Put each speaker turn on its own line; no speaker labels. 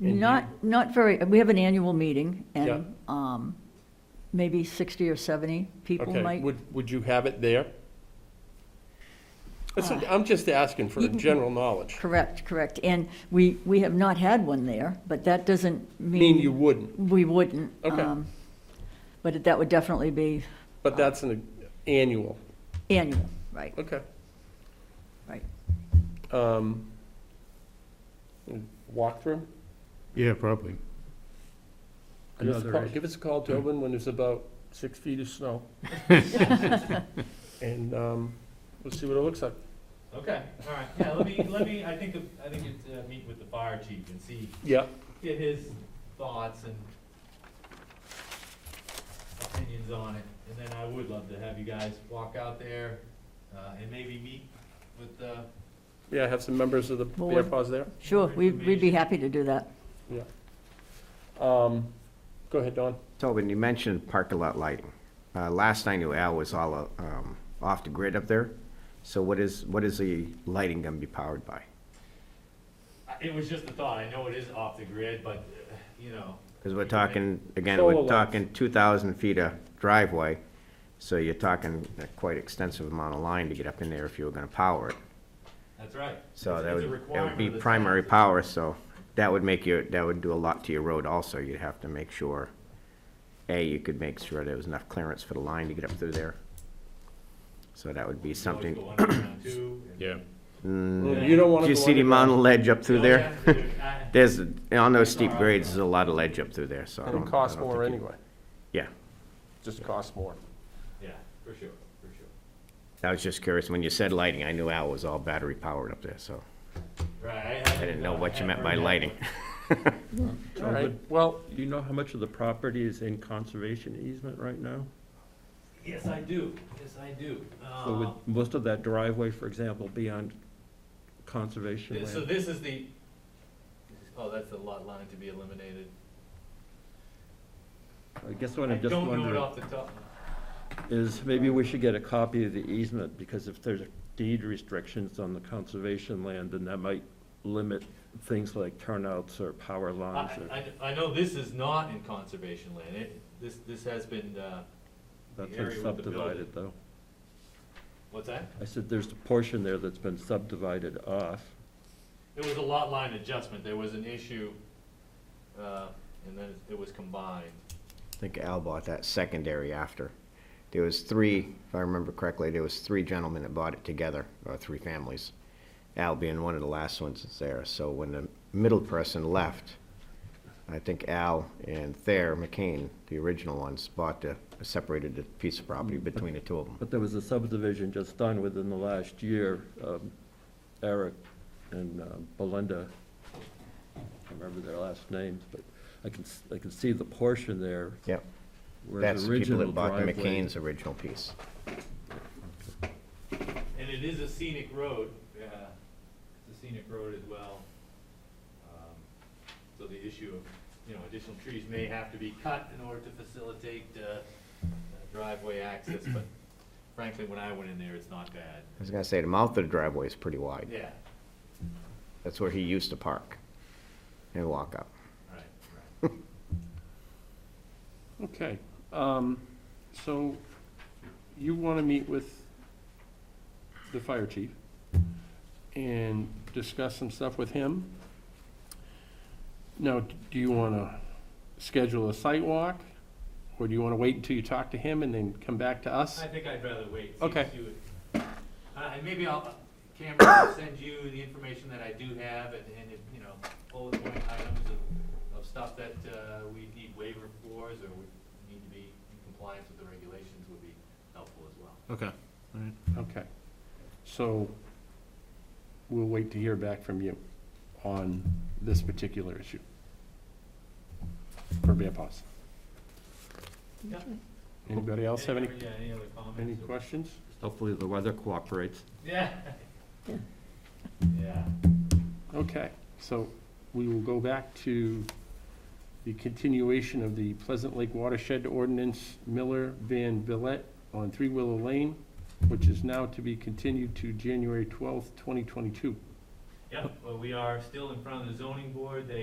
And
Not, not very, we have an annual meeting, and um, maybe 60 or 70 people
Okay,
might.
would, would you have it there? That's- I'm just asking for
Uh, you can-
general knowledge.
Correct, correct. And we, we have not had one there, but that doesn't
I
mean.
mean, you wouldn't,
We wouldn't.
Okay.
um, But that would definitely be uh,
but that's an annual,
annual, right,
okay.
right.
Um, Walkthrough?
Yeah, probably.
Give us a
Another
call-
issue.
Give us a call, Tobin, when there's about six feet of snow. And um, we'll see what it looks like.
Okay, all right, yeah, let me, let me, I think, the- I think it's, uh, meet with the fire chief and see,
Yeah,
get his thoughts and opinions on it, and then I would love to have you guys walk out there, uh, and maybe meet with, uh,
yeah, have some members of the Bear
Board.
Paws there.
Sure,
More
we- we'd be
information.
happy to do that.
Um, Go ahead, Don.
So when you mentioned parking lot lighting, uh, last I knew Al was all, uh, um, off the grid up there. So what is, what is the lighting gonna be powered by?
I- it was just a thought, I know it is off the grid, but, uh, you know,
Because we're talking, again,
Solar
we're
lights.
talking two thousand feet of driveway. So you're talking a quite extensive amount of line to get up in there if you were gonna power it.
that's right.
So
It's-
that
it's a
would, that would
requirement
be
of the town.
primary power, so that would make your, that would do a lot to your road also. You'd have to make sure, A, you could make sure there was enough clearance for the line to get up through there. So that would be
You can always
something.
go underground too, and-
You don't want to
Do Mm.
go
you see the amount of
underground.
ledge up through
No,
there?
Oh, yeah, dude, I-
There's, on those steep grades, there's a lot of ledge up through there, so. I
And
don't-
it
I
costs
don't
more
think you-
anyway,
Yeah,
just costs more.
Yeah, for sure, for sure.
I was just curious, when you said lighting, I knew Al was all battery powered up there, so
Right.
I didn't know what you meant by lighting.
All right, well,
Do you know how much of the property is in conservation easement right now?
Yes, I do, yes, I do.
So
Uh,
would most of that driveway, for example, be on conservation
thi- So
land?
this is the, oh, that's the lot line to be eliminated.
I guess what
I
I'm just
don't know it
wondering
off the top.
is, maybe we should get a copy of the easement, because if there's deed restrictions on the conservation land, then that might limit things like turnouts or power
I,
lines or,
I, I know this is not in conservation land, it, this, this has been, uh,
that's
area
been
with the building.
subdivided, though.
what's that?
I said, there's a portion there that's been subdivided off.
It was a lot line adjustment, there was an issue, uh, and then it was combined.
I think Al bought that secondary after. There was three, if I remember correctly, there was three gentlemen that bought it together, or three families. Al being one of the last ones that's there, so when the middle person left, I think Al and Thayer McCain, the original ones, bought the, separated the piece of property between the two of them.
But there was a subdivision just done within the last year, um, Eric and um, Belinda, I can't remember their last names, but I can, s- I can see the portion there
Yep,
where
that's
the
the people
original
that bought the
driveway.
McCain's original piece.
And it is a scenic road, uh, it's a scenic road as well. Um, So the issue of, you know, additional trees may have to be cut in order to facilitate uh, driveway access, but frankly, when I went in there, it's not bad.
I was gonna say, the mouth of the driveway is pretty wide.
Yeah,
That's where he used to park and walk up.
right, right.
okay. Um, So you want to meet with the fire chief and discuss some stuff with him? Now, d- do you want to schedule a site walk? Or do you want to wait until you talk to him and then come back to us?
I think I'd rather wait. see-
Okay.
see what- Uh, and maybe I'll, Cameron, I'll send you the information that I do have and, and, if, you know, bullet point items of, of stuff that, uh, we need waiver floors or we need to be in compliance with the regulations would be helpful as well.
Okay, all right. Okay. So we'll wait to hear back from you on this particular issue. For Bear Paws.
Yeah.
Anybody else have any,
Yeah, any other comments?
any
or-
questions?
Hopefully the weather cooperates.
Yeah.
Yeah.
Yeah.
Okay, so we will go back to the continuation of the Pleasant Lake Watershed Ordinance Miller Van Villette on Three Willow Lane, which is now to be continued to January twelfth, twenty twenty-two.
Yeah, well, we are still in front of the zoning board. They